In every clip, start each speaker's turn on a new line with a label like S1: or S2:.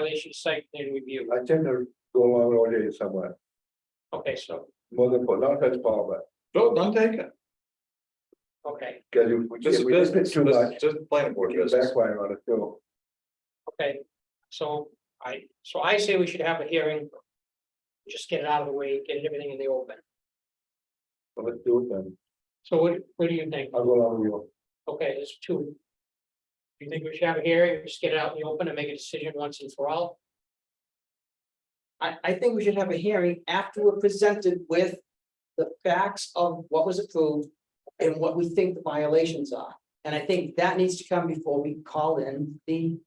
S1: violation site plan review.
S2: I tend to go along all day somewhere,
S1: Okay, so,
S2: more than four, not as far, but,
S3: No, don't take it.
S1: okay,
S2: because if we,
S3: This
S2: if
S3: is
S2: we did it
S3: business,
S2: too
S3: this
S2: much,
S3: is just planning board
S2: we
S3: business.
S2: backfire on it, so.
S1: okay. So I, so I say we should have a hearing. Just get it out of the way, get everything in the open.
S2: so Let's do it then,
S1: So what, what do you think?
S2: I'll go along with you,
S1: Okay, there's two. You think we should have a hearing, just get it out in the open and make a decision once and for all?
S4: I, I think we should have a hearing after we're presented with the facts of what was approved and what we think the violations are. And I think that needs to come before we call in the,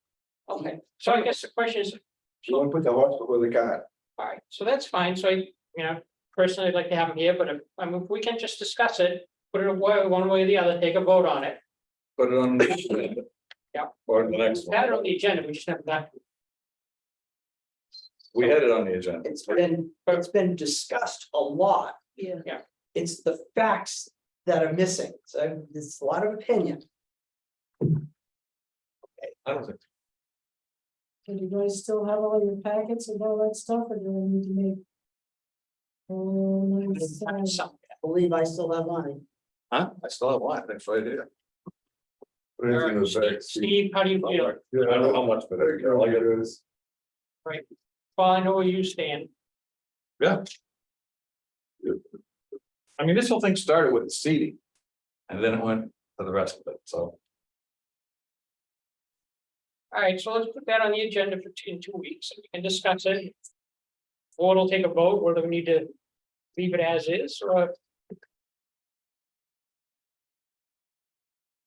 S4: okay,
S1: So I guess the question is,
S2: you wanna put the horse before the cart,
S1: All right, so that's fine, so I, you know, personally, I'd like to have them here, but if, I mean, if we can just discuss it, put it away one way or the other, take a vote on it.
S3: Put it on. the agenda.
S1: Yeah.
S3: Or the next
S1: That on
S3: one.
S1: the agenda, we just have that,
S3: We had it on the agenda.
S4: it's been, it's been discussed a lot.
S5: Yeah.
S1: Yeah.
S4: It's the facts that are missing, so there's a lot of opinion.
S3: I don't think,
S5: Do you guys still have all your packets and all that stuff, or do we need to make? Oh, nice,
S4: I
S5: uh,
S4: believe I still have mine.
S3: huh? I still have one, that's right here.
S2: what is it gonna say?
S1: Steve, how do you feel?
S2: You
S3: I don't know how
S2: know,
S3: much, but
S2: there you
S3: I
S2: go,
S3: like
S2: like
S3: it.
S2: it is.
S1: Well, I know where you stand,
S3: I mean, this whole thing started with the seating. And then it went to the rest of it, so.
S1: all right, so let's put that on the agenda for two, in two weeks, and we can discuss it. Board will take a vote, whether we need to leave it as is, or.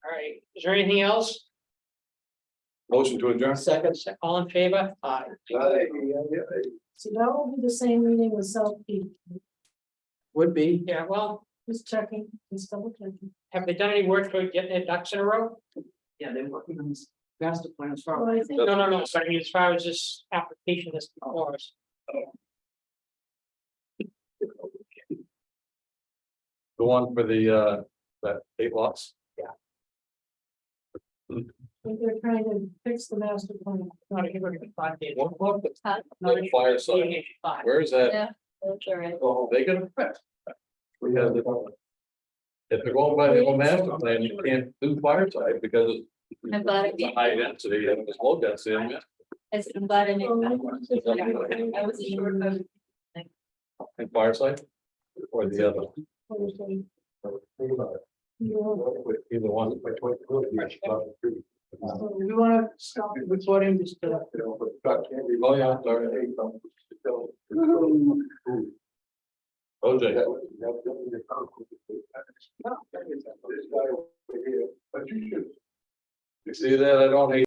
S1: All right, is there anything else?
S3: Motion to adjourn.
S4: Second,
S1: All in favor? Aye.
S2: Aye, yeah, yeah.
S5: So that will be the same meeting with South Peak,
S4: would be.
S1: Yeah, well,
S5: just checking, just double checking.
S1: have they done any work for getting their ducks in a row?
S4: Yeah, they're working on this master plan as far.
S5: Well, I think
S1: No, no, no, sorry, I mean, as far as this application that's
S4: Oh.
S1: before us.
S3: The one for the, uh, that eight lots.
S5: that they're trying to fix the master plan.
S1: Not a good thought, Dave.
S3: One block, that's
S6: Huh?
S1: Not a-
S3: fire side.
S1: Five.
S3: Where is that?
S6: Yeah. That's all right.
S3: Oh, they get a fix. We have the. If they're going by the old master plan, you can't do fire side because.
S6: I'm glad I
S3: it's a High density, and it's low density. I mean,
S6: I said, I'm glad I made that. I was a short
S5: Um,
S6: vote.
S3: And fire side. Or the other.
S5: Thursday,
S2: Think about it.
S5: you're-
S3: Either one.
S5: so We wanna stop recording this. uh,
S3: Oh, yeah, sorry. OJ.
S2: This guy over here, but you should
S3: You see that? I don't hate.